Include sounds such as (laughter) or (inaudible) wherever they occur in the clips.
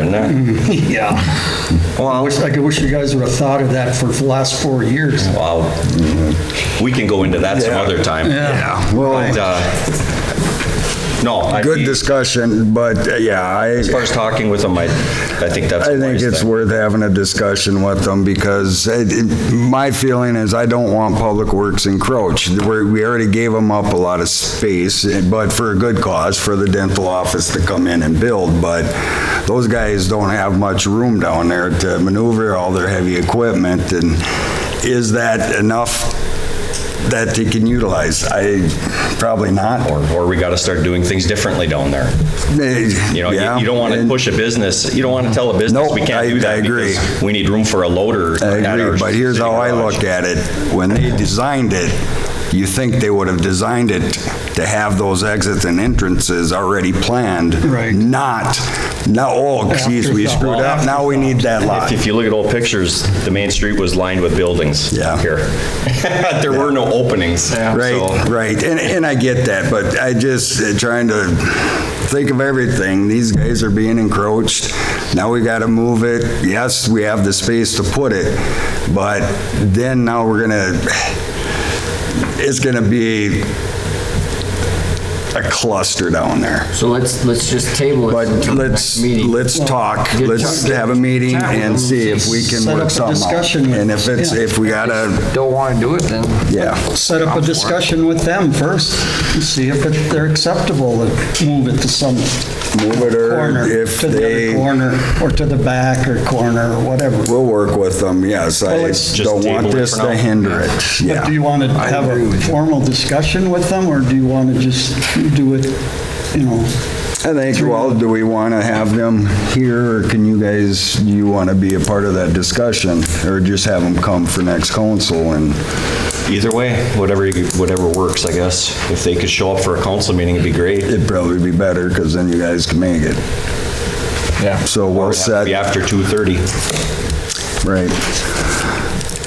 in Mm-hmm. there. Yeah. I Well, wish, I could wish you guys would have thought of that for the last four years. well, we can go into that some other time. Yeah. But, Well, uh, no, I, good as discussion, but uh, yeah, I, far as talking with them, I, I think that's. I a think wise it's thing. worth having a discussion with them because it- it- my feeling is I don't want Public Works encroached. We're- We already gave them up a lot of space, eh, but for a good cause, for the dental office to come in and build. But those guys don't have much room down there to maneuver all their heavy equipment. And is that enough that they can utilize? I, probably not. Or, or we gotta start doing things differently down there. You know, you- you don't wanna push a business, you don't wanna tell a business, No, we can't I- do that. I agree. because We need room for a loader. I at our agree, but here's city how I garage. look at it. When they designed it, you think they would have designed it to have those exits and entrances already planned. Right. Not, now, oh, geez, we Afterthought. screwed up, now we need that If- lot. If you look at old pictures, the main street was lined with buildings. Yeah. Here. (laughs) There were no openings. Right, so- right, and, and I get that, but I just uh, trying to think of everything. These guys are being encroached, now we gotta move it. Yes, we have the space to put it, but then now we're gonna, it's gonna be a cluster down there. So let's, let's just table it But until the let's, next meeting. let's talk, Get let's talk- have a meeting chat with and them, see if we set can up a work something out. discussion with- And if it's, yeah. if we gotta, Don't want to do it, then yeah. Set up a discussion with them first, and see if it- they're acceptable, and move it to some Move it or corner, if to the they- other corner, or to the back, or corner, or whatever. We'll work with them, yes. I Well, let's just don't table want it this for now. to hinder it, But do you yeah. want to have agree a with you. formal discussion with them, or do you want to just do it, you know? I think, well, do we want to have them here, or can you guys, do you want to be a part of that discussion? Or just have them come for next council and, Either way, whatever, you- whatever works, I guess. If they could show up for a council meeting, it'd be great. it'd probably be better, because then you guys can make it. Yeah. So we'll It'd have to set, Be after 2:30. right.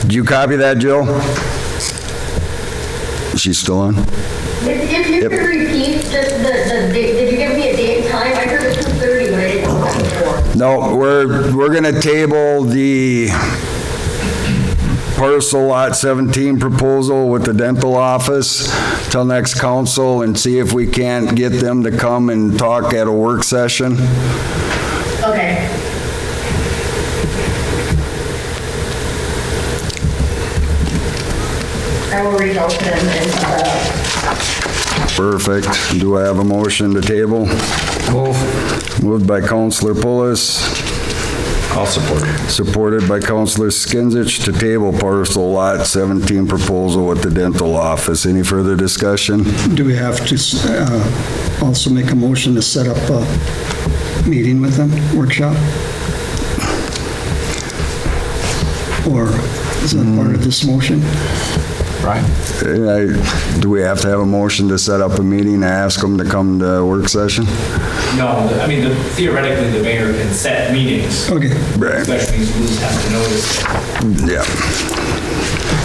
Did you copy that, Jill? Is she still on? If, if you could repeat just the, the, date- did you give me a date and time? I heard it was 2:30, but I didn't know what it was. No, we're, we're gonna table the parcel lot 17 proposal with the dental office till next council and see if we can't get them to come and talk at a work session. Okay. I will reach out to them and, uh, Perfect. Do I have a motion to table? Moved by Counselor Pulis. I'll support it. supported by Counselor Skinsich, to table parcel lot 17 proposal with the dental office. Any further discussion? Do we have to uh, also make a motion to set up a meeting with them, workshop? Or is that part of this motion? Right. Uh, Do we have to have a motion to set up a meeting to ask them to come to work session? No, I mean, theoretically, the mayor can set meetings. Okay. Right. Especially these rules have to notice.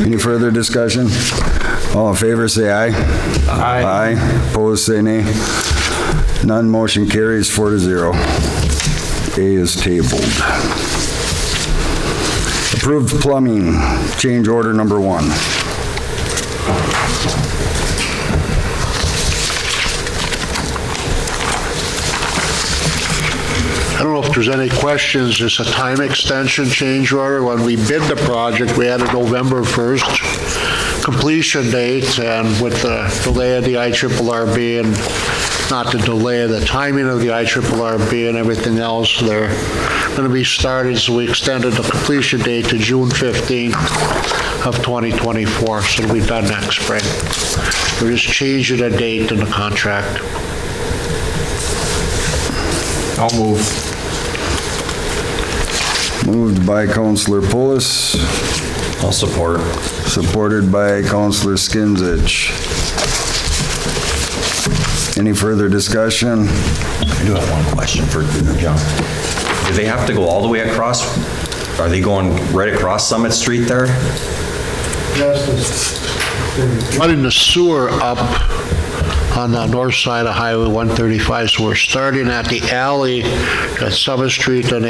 Yeah. Any further discussion? All in favor, say aye. Aye. Aye. Opposed, say nay. None, motion carries four to zero. A is tabled. Approved plumbing, change order number one. I don't know if there's any questions, it's a time extension change order. When we bid the project, we had a November 1st completion date, and with the delay of the IRRB and not the delay, the timing of the IRRB and everything else, they're going to be started, so we extended the completion date to June 15th of 2024, so it'll be done next spring. We're just changing the date in the contract. I'll move. Moved by Counselor Pulis, I'll support. supported by Counselor Skinsich. Any further discussion? I do have one question for John. Do they have to go all the way across? Are they going right across Summit Street there? running the sewer up on the north side of Highway 135, so we're starting at the alley at Summit Street, then